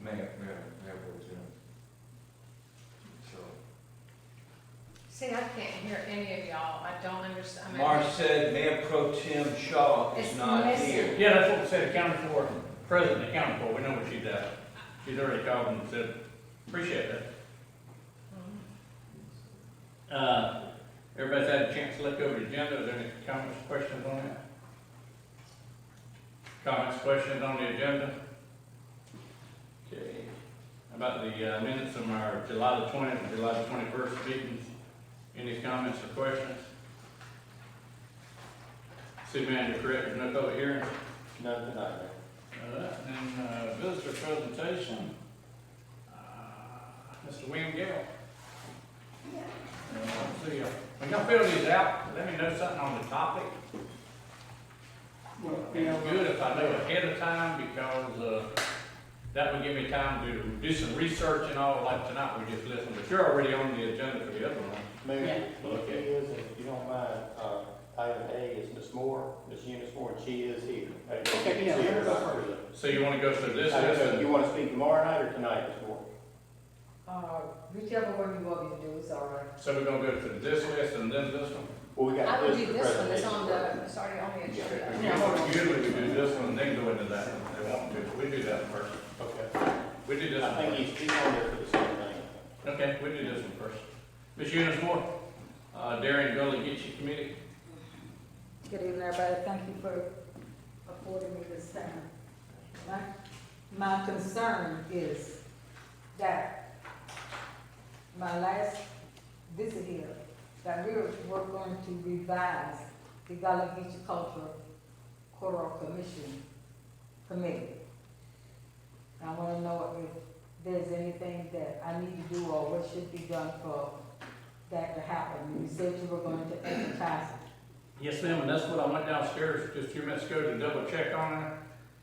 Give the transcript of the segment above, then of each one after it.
Mayor, mayor, mayor will do. So, See, I can't hear any of y'all, I don't understand. I mean, Marsh said Mayor Pro Tem Shaw is It's not missing. here. Yeah, that's what we said, accounted for, president accounted for, we know what she does. She's already called and said, appreciate that. Uh, everybody's had a chance to look over the agenda, are there any comments, questions on that? Comments, questions on the agenda? Okay, How about the uh, minutes from our July the twentieth and July the twenty-first meetings, any comments or questions? City manager, correct, no public hearings? No, tonight, no. All right, and, uh, visitor presentation, uh, Mr. William Gale. Uh, let's see, uh, when y'all fill these out, let me know something on the topic. Well, you know, It's good if I know ahead of time, because, uh, that would give me time to do some research and all, like tonight, we just listened, but you're already on the agenda for the other one. Mayor, Yeah. if he is, if you don't mind, uh, item A is Miss Moore, Miss Eunice Moore, and she is here. Okay, yeah, let her go first. So you wanna go through this, I don't this, know, Uh, you and, wanna speak tomorrow night or tonight, Miss Moore? Uh, whichever one you want me to do is all right. so we're gonna go through this list and then this one? Well, we I got would do this for this one, it's presentation. on the, it's already on the agenda. Yeah, hold on. Usually we do this one, then go into that, one. they won't do, it. we do that first, Okay, we do this one. I think first. he's, he's on there for the same thing. Okay, we do this one first. Ms. Eunice Moore, uh, Darren Gully Get You Committee, Good evening, everybody. Thank you for affording me this time. My, my concern is that my last visit here, that we were, were going to revise the Gullah Geechee Cultural Choral Commission Committee. I wanna know if there's anything that I need to do or what should be done for that to happen. You said you were going to advertise it. Yes, ma'am, and that's what I went downstairs just a few minutes ago to double check on it.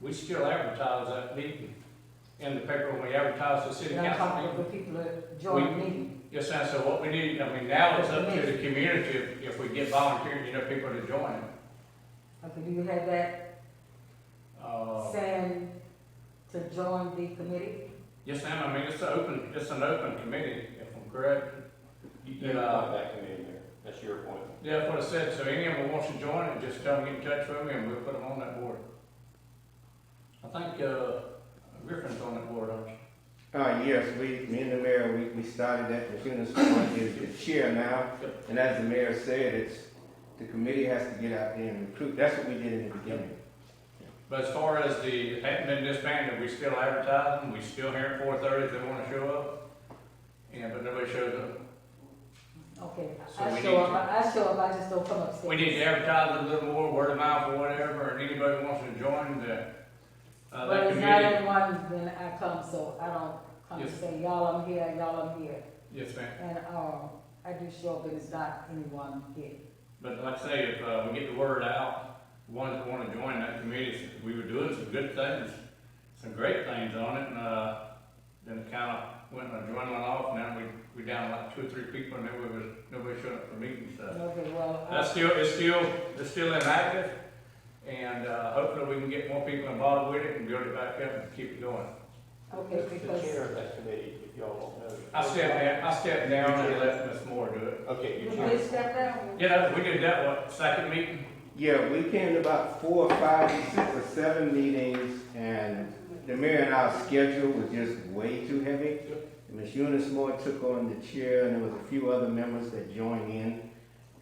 We still advertise that meeting in the paper when we advertise the city And I'm council talking to meeting. the people that join me. Yes, ma'am, so what we need, I mean, now it's up to the community if, if we get volunteers, you know, people to join it. Okay, do you have that Uh, saying to join the committee? yes, ma'am, I mean, it's an open, it's an open committee, if I'm correct. You can Yeah. appoint that committee there, that's your appointment. Yeah, that's what I said, so any of them wants to join it, just tell them, get in touch with me, and we'll put them on that board. I think, uh, Griffin's on that board, aren't you? Uh, yes, we, me and the mayor, we, we started that, the Eunice Moore is the chair now, and as the mayor said, it's, the committee has to get out there and recruit, that's what we did in the beginning. But as far as the, hadn't been disbanded, we still advertise them, we still here at four thirty if they wanna show up. Yeah, but nobody shows up. Okay, So we I need show up, to- I I show up, I just don't come upstairs. We need to advertise it a little more, word of mouth or whatever, and anybody wants to join the, uh, But that it's not committee. anyone, then I come, so I don't come and Yes. say, y'all, I'm here, y'all, I'm here. Yes, ma'am. And, um, I do show up, but it's not anyone here. But like I say, if, uh, we get the word out, ones that wanna join that committee, we were doing some good things, some great things on it, and, uh, then it kinda went and dwindling off, and then we, we down like two or three people, and nobody was, nobody showed up for meetings, so. Okay, well, That's I, still, it's still, it's still inactive, and, uh, hopefully we can get more people involved with it and build it back up and keep it going. okay, The because, chair of that committee, if y'all don't know. I stepped down, I stepped down and let Ms. Moore do it. Okay, you you chair. did step down? You know, we did that one, second meeting, Yeah, we came to about four or five, six or seven meetings, and the mayor and our schedule was just way too heavy. And Ms. Eunice Moore took on the chair, and there was a few other members that joined in.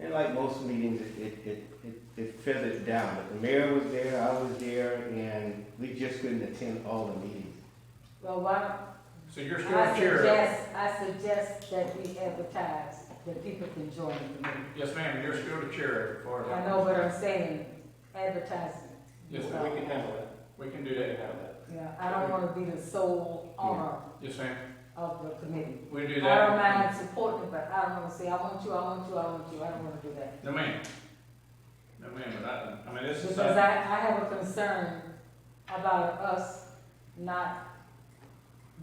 And like most meetings, it, it, it, it- it feathered down, but the mayor was there, I was there, and we just couldn't attend all the meetings. Well, why don't, so you're still I the chair. suggest, I suggest that we advertise that people can join the committee. Yes, ma'am, you're still the chair as far as. I know what I'm saying, advertising. Yes, We can handle that, We can do we can that. handle that. Yeah, I don't wanna be the sole owner Yes, ma'am, of the committee. we I do that. don't mind supporting, it, but I don't wanna say, I want you, I want you, I want you, I don't wanna do that. No, ma'am. No, ma'am, but I, I mean, this is, uh, Because I, I have a concern about us not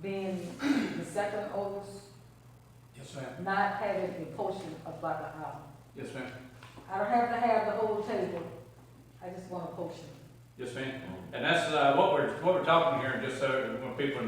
being the second oldest, yes, ma'am, not having a portion of Butter Island. yes, ma'am, I don't have to have the whole table, I just want a portion. yes, ma'am. And that's, uh, what we're, what we're talking here, just so when people know